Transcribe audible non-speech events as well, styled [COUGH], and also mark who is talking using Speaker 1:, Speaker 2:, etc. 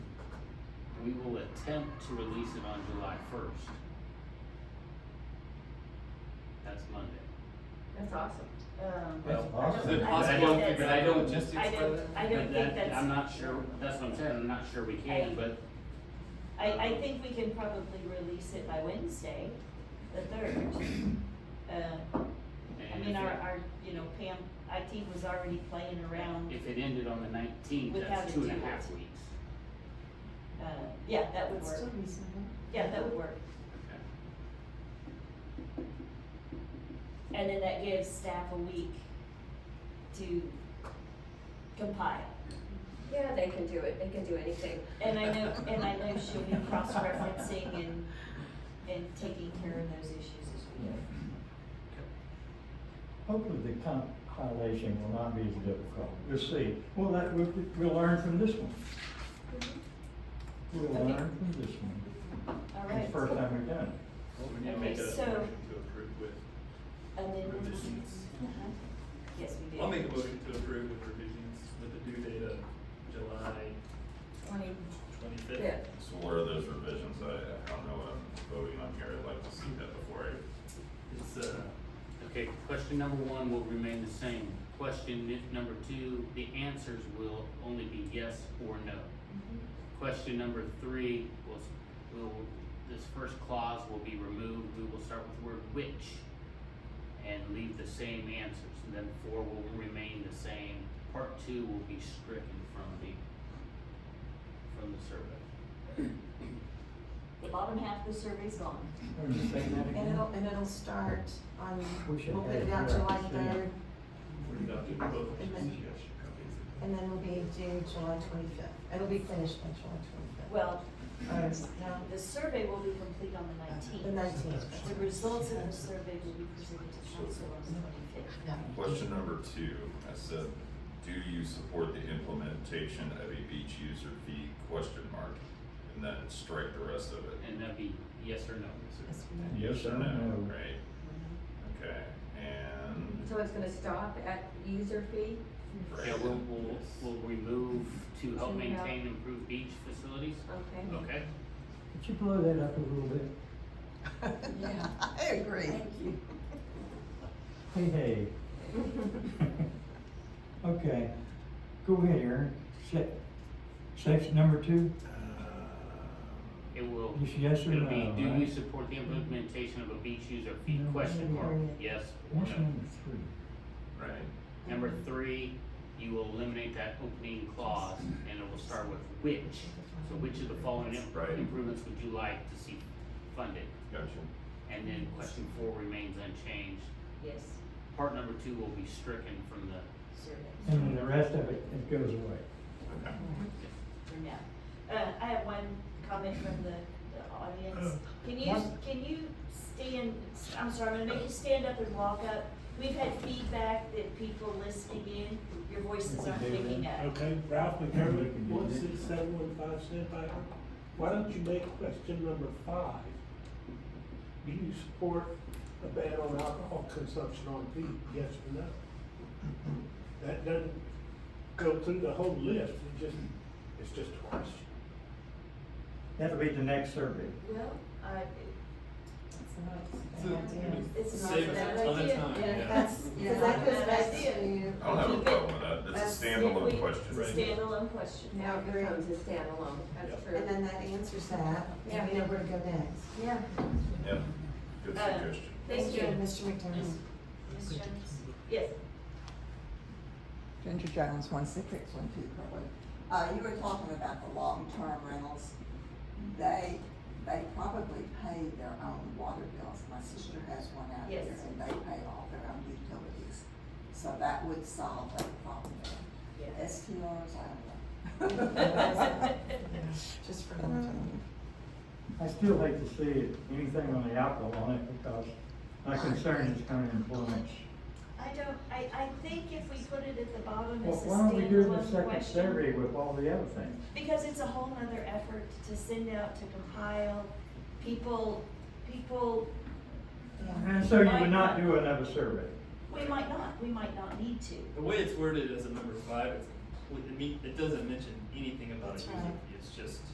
Speaker 1: we will attempt to release it on July first. That's Monday.
Speaker 2: That's awesome. Um,
Speaker 3: That's
Speaker 1: Well,
Speaker 2: I don't-
Speaker 3: awesome.
Speaker 2: I
Speaker 1: Is it
Speaker 2: don't
Speaker 1: possible
Speaker 2: think
Speaker 1: to
Speaker 2: that's-
Speaker 1: figure out
Speaker 3: logistics
Speaker 2: I
Speaker 3: for
Speaker 2: don't,
Speaker 3: that?
Speaker 2: I
Speaker 1: But that-
Speaker 2: don't think that's.
Speaker 1: I'm not sure, that's what I'm saying, I'm not sure we can,
Speaker 2: I-
Speaker 1: but
Speaker 2: I, I think we can probably release it by Wednesday, the third. Uh, I
Speaker 1: and if
Speaker 2: mean, our,
Speaker 1: it,
Speaker 2: our, you know, Pam, IT was already playing around,
Speaker 1: if it ended on the nineteenth,
Speaker 2: Without
Speaker 1: that's
Speaker 2: it,
Speaker 1: two and
Speaker 2: do
Speaker 1: a
Speaker 2: it.
Speaker 1: half weeks.
Speaker 2: uh, yeah, that would
Speaker 4: It's still
Speaker 2: work,
Speaker 4: reasonable.
Speaker 2: yeah, that would work.
Speaker 1: Okay.
Speaker 2: And then that gives staff a week to compile.
Speaker 5: Yeah, they can do it, they can do anything.
Speaker 2: And I know, and I know she'll be cross-referencing and, and taking care of those issues as we go.
Speaker 6: Hopefully the compilation will not be as difficult. We'll see. Well, that, we'll, we'll learn from this one. We'll
Speaker 2: Okay.
Speaker 6: learn from this one.
Speaker 2: All
Speaker 6: It's the first
Speaker 2: right,
Speaker 6: time we've done it.
Speaker 3: We need to
Speaker 2: Okay,
Speaker 3: make a
Speaker 2: so-
Speaker 3: motion to approve with,
Speaker 2: and then.
Speaker 3: Revisions.
Speaker 2: Uh-huh. Yes, we do.
Speaker 3: I'll make a motion to approve with revisions with the due date of July
Speaker 2: Twenty,
Speaker 3: twenty-fifth.
Speaker 5: Yeah.
Speaker 7: So what are those revisions? I, I don't know what I'm voting on here. I'd like to see that before I
Speaker 3: It's, uh,
Speaker 1: Okay, question number one will remain the same. Question nu- number two, the answers will only be yes or no. Question number three will, s- will, this first clause will be removed. We will start with the word which and leave the same answers. And then four will remain the same. Part two will be stricken from the, from the survey.
Speaker 2: the bottom half of the survey's gone.
Speaker 6: Are you saying that
Speaker 4: And
Speaker 6: again?
Speaker 4: it'll, and it'll start on,
Speaker 6: We should
Speaker 4: we'll put
Speaker 6: have
Speaker 4: it out
Speaker 6: it
Speaker 4: July
Speaker 6: right
Speaker 4: third,
Speaker 6: soon.
Speaker 3: we're adopting both.
Speaker 4: And then- and then we'll be due July twenty-fifth. It'll be finished by July
Speaker 2: Well,
Speaker 4: twenty-fifth.
Speaker 2: the survey will be complete on the
Speaker 4: The
Speaker 2: nineteenth.
Speaker 4: nineteenth.
Speaker 2: The results of the survey will be presented to council on the twenty-fifth.
Speaker 7: Question number two, I said, do you support the implementation of a beach user fee question mark? And then strike the rest of it.
Speaker 1: And that'd be yes or no.
Speaker 7: Yes or
Speaker 6: No.
Speaker 7: no, right? Okay, and,
Speaker 5: So it's gonna stop at user fee?
Speaker 7: right.
Speaker 1: Yeah, we'll, we'll, we'll remove to help
Speaker 5: To help.
Speaker 1: maintain improved beach facilities.
Speaker 5: Okay.
Speaker 1: Okay.
Speaker 6: Could you blow that up a little bit?
Speaker 2: [LAUGHS]
Speaker 4: Yeah, I agree.
Speaker 6: Hey, hey. Okay, go ahead, Aaron. Se- Section number two,
Speaker 7: Uh,
Speaker 1: It will,
Speaker 6: It's yes or
Speaker 1: it'll be,
Speaker 6: no,
Speaker 1: do we
Speaker 6: right?
Speaker 1: support the implementation of a beach user fee
Speaker 6: uh, No,
Speaker 1: question
Speaker 6: no,
Speaker 1: mark?
Speaker 4: no.
Speaker 1: Yes or
Speaker 6: what's
Speaker 1: no?
Speaker 6: number three?
Speaker 7: Right,
Speaker 1: Number three, you will eliminate that opening clause and it will start with which. So which of the following im-
Speaker 7: Right.
Speaker 1: improvements would you like to see funded?
Speaker 7: gotcha.
Speaker 1: And then question four remains unchanged.
Speaker 2: Yes,
Speaker 1: Part number two will be stricken from the,
Speaker 2: survey.
Speaker 6: And then the rest of it, it goes away.
Speaker 7: Okay.
Speaker 2: Mm-hmm. for now. Uh, I have one comment from the, the audience. Can you, can you stand, I'm sorry, I'm gonna make you stand up and walk up. We've had feedback that people listening in, your voices aren't picking up.
Speaker 8: Okay, Ralph McDermott, one six seven one five Sandpiper. Why don't you make question number five? Do you support a ban on alcohol consumption on beach, yes or no? That doesn't go through the whole list, it just, it's just a question.
Speaker 6: That'll be the next survey.
Speaker 2: Well, I,
Speaker 4: It's not a bad idea.
Speaker 2: it's not a
Speaker 3: Save us
Speaker 2: bad
Speaker 3: a ton of
Speaker 2: idea.
Speaker 3: time,
Speaker 2: [LAUGHS]
Speaker 3: yeah.
Speaker 4: That's,
Speaker 2: Yeah.
Speaker 4: cause that goes back to.
Speaker 7: I don't have a
Speaker 2: Keep it.
Speaker 7: problem with that. That's a
Speaker 2: That's if we-
Speaker 7: standalone question.
Speaker 3: Right.
Speaker 2: Standalone question.
Speaker 5: Now it becomes a standalone, that's true.
Speaker 4: And then that answers that,
Speaker 5: Yeah.
Speaker 4: and we know where to go next.
Speaker 5: Yeah.
Speaker 7: Yeah, good
Speaker 2: Uh,
Speaker 7: suggestion.
Speaker 2: Thank you.
Speaker 4: Mr. McDermott.
Speaker 2: Ms. Jones? Yes.
Speaker 9: Ginger Jones, one six six one two Kirkwood. Uh, you were talking about the long-term rentals. They, they probably pay their own water bills. My sister has one out here
Speaker 2: Yes.
Speaker 9: and they pay all their own utilities. So that would solve that problem there.
Speaker 2: [LAUGHS]
Speaker 9: STRs, I don't know.
Speaker 4: [LAUGHS]
Speaker 9: [LAUGHS]
Speaker 2: [LAUGHS]
Speaker 4: Just for another time.
Speaker 6: I still hate to see anything on the alcohol on it because my concern is kind of employment.
Speaker 2: I don't, I, I think if we put it at the bottom
Speaker 6: Well,
Speaker 2: as a
Speaker 6: why don't we do the
Speaker 2: standalone
Speaker 6: second
Speaker 2: question.
Speaker 6: survey with all the other things?
Speaker 2: Because it's a whole nother effort to send out, to compile, people, people,
Speaker 6: And so you would not do another survey.
Speaker 2: we might not, we might not need to.
Speaker 3: The way it's worded as a number five, it's complete, it mean- it doesn't mention anything about a
Speaker 4: That's
Speaker 3: user
Speaker 4: right.
Speaker 3: fee, it's just.